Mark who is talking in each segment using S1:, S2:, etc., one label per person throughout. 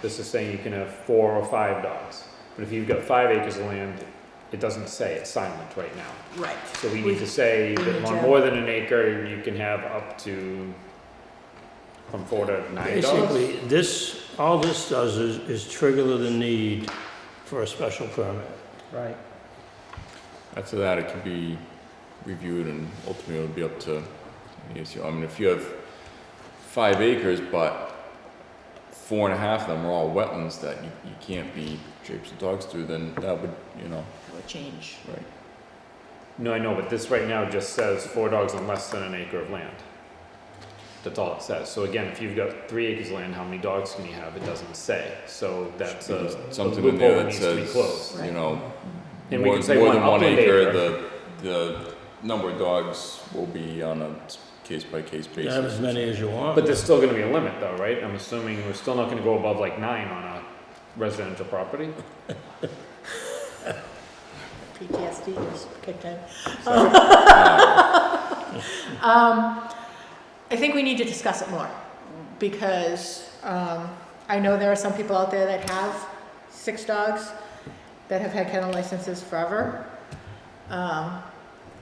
S1: This is saying you can have four or five dogs. But if you've got five acres of land, it doesn't say, it's silent right now.
S2: Right.
S1: So we need to say
S2: We
S1: that
S2: need
S1: on
S2: to-
S1: more than an acre, you can have up to, from four to nine dogs.
S3: Basically, this, all this does is, is trigger the need for a special permit.
S4: Right.
S5: After that, it can be reviewed and ultimately it'll be up to the ACO. I mean, if you have five acres, but four and a half of them are all wetlands that you, you can't be traipsing dogs through, then that would, you know,
S2: A change.
S5: right.
S1: No, I know, but this right now just says four dogs on less than an acre of land. That's all it says. So again, if you've got three acres of land, how many dogs can you have? It doesn't say. So that's
S5: Should be
S1: a a
S5: Something in
S1: loophole
S5: there
S1: that
S5: that
S1: needs to be
S5: says,
S1: closed.
S5: you
S2: Right.
S5: know,
S1: And we
S5: more,
S1: can say
S5: more
S1: one
S5: than one
S1: upland
S5: acre,
S1: acre.
S5: the, the number of dogs will be on a case by case
S3: You
S5: basis.
S3: Have as many as you want.
S1: But there's still gonna be a limit though, right? I'm assuming we're still not gonna go above like nine on a residential property?
S2: PTSD is kicked in.
S1: So-
S2: Um, I think we need to discuss it more because um, I know there are some people out there that have six dogs that have had kennel licenses forever, um,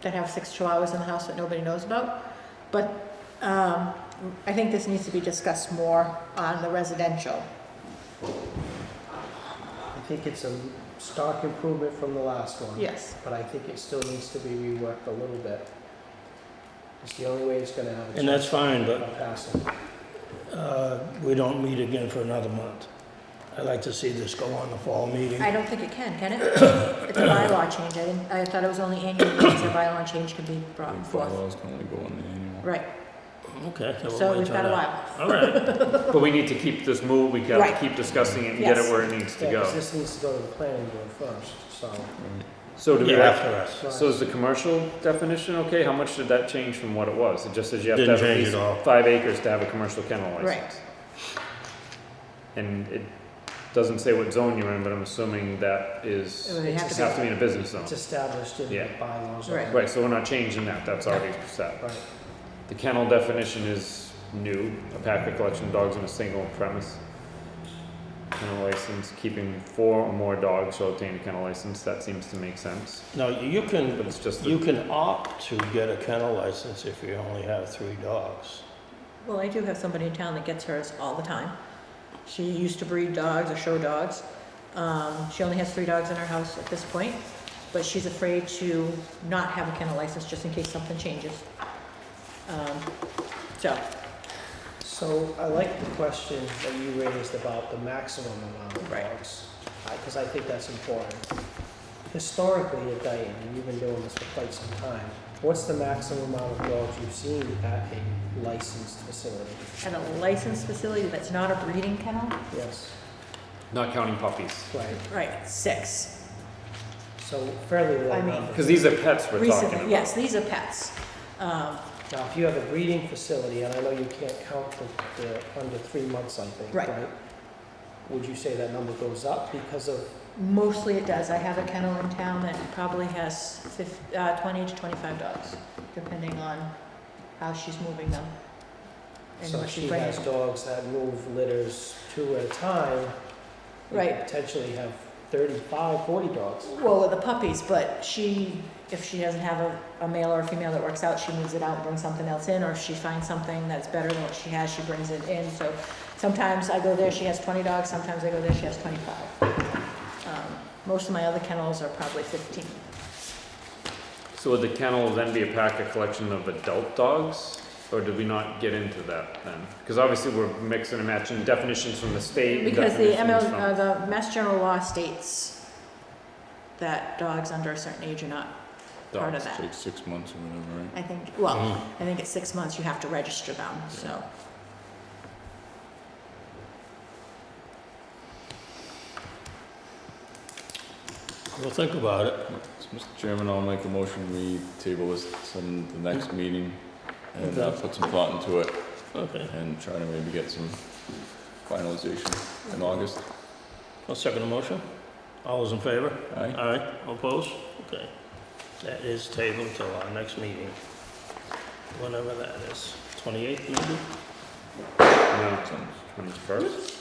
S2: that have six chihuahuas in the house that nobody knows about. But um, I think this needs to be discussed more on the residential.
S4: I think it's a stock improvement from the last one.
S2: Yes.
S4: But I think it still needs to be reworked a little bit. It's the only way it's gonna have a chance.
S3: And that's fine, but
S4: of passing.
S3: uh, we don't meet again for another month. I'd like to see this go on the fall meeting.
S2: I don't think it can, can it? It's a bylaw change. I didn't, I thought it was only annual meetings a bylaw change can be
S5: I
S2: brought
S5: think
S2: forth.
S5: bylaws can only go on the annual.
S2: Right,
S3: Okay. we'll
S2: so
S3: wait
S2: we've
S3: till
S2: got a
S3: that.
S2: while.
S3: All right,
S1: But we need to keep this move, we gotta
S2: Right.
S1: keep discussing it and get
S2: Yes.
S1: it where it needs to
S4: Yeah, 'cause
S1: go.
S4: this needs to go to the planning board first, so.
S1: So do we
S3: yeah,
S1: have,
S3: after us.
S1: so is the commercial definition okay? How much did that change from what it was? It just says you have to
S3: Didn't
S1: have at
S3: change
S1: least
S3: at all.
S1: five acres to have a commercial kennel
S2: Right.
S1: license. And it doesn't say what zone you're in, but I'm assuming that is,
S2: It would have
S1: just
S2: to be-
S1: have to be in a business zone.
S4: It's established in the
S1: Yeah.
S4: bylaws.
S2: Right.
S1: Right, so we're not changing that, that's already set.
S4: Right.
S1: The kennel definition is new, a pack of collection of dogs on a single premise. Kennel license, keeping four or more dogs shall obtain a kennel license, that seems to make sense,
S3: Now, you
S1: but
S3: can,
S1: it's just,
S3: you
S1: the-
S3: can opt to get a kennel license if you only have three dogs.
S2: Well, I do have somebody in town that gets hers all the time. She used to breed dogs or show dogs. Um, she only has three dogs in her house at this point, but she's afraid to not have a kennel license just in case something changes. Um, so,
S4: So I like the question that you raised about the maximum amount of
S2: Right.
S4: dogs, because I think that's important. Historically at Dayton, and you've been doing this for quite some time, what's the maximum amount of dogs you've seen at a licensed facility?
S2: at a licensed facility that's not a breeding kennel?
S4: Yes,
S1: not counting puppies.
S4: right,
S2: Right, six.
S4: so fairly
S2: I
S4: low
S2: mean-
S4: number.
S1: Cause these are pets we're talking
S2: Recently,
S1: about.
S2: yes, these are pets. Um,
S4: Now, if you have a breeding facility, and I know you can't count the, the under three months, I think,
S2: Right.
S4: right? Would you say that number goes up because of,
S2: Mostly it does. I have a kennel in town that probably has fif- uh, twenty to twenty-five dogs, depending on how she's moving them. and
S4: so
S2: what she's
S4: she
S2: bringing.
S4: has dogs that move litters two at a time, you could
S2: Right.
S4: potentially have 35, 40 dogs.
S2: Well, with the puppies, but she, if she doesn't have a, a male or a female that works out, she moves it out and brings something else in, or if she finds something that's better than what she has, she brings it in, so sometimes I go there, she has twenty dogs, sometimes I go there, she has twenty-five. Um, Most of my other kennels are probably fifteen.
S1: So would the kennel then be a pack of collection of adult dogs? Or did we not get into that then? Cause obviously we're mixing and matching definitions from the state.
S2: Because the
S1: definitions
S2: ML,
S1: from-
S2: uh, the Mass General Law states that dogs under a certain age are not part of
S5: Dogs
S2: that.
S5: Take six months or whatever, right?
S2: I think, well, I think at six months you have to register them, so.
S3: We'll think about it.
S5: So, Mr. Chairman, I'll make a motion, we table this to the next meeting and uh, put some thought into it
S3: Okay,
S5: and try to maybe get some finalization in August.
S3: I'll second the motion. All those in favor?
S5: Aye?
S3: Aye, opposed? Okay. That is tabled till our next meeting, whenever that is, 28th maybe?
S1: No,
S5: Sounds-
S1: twenty-first?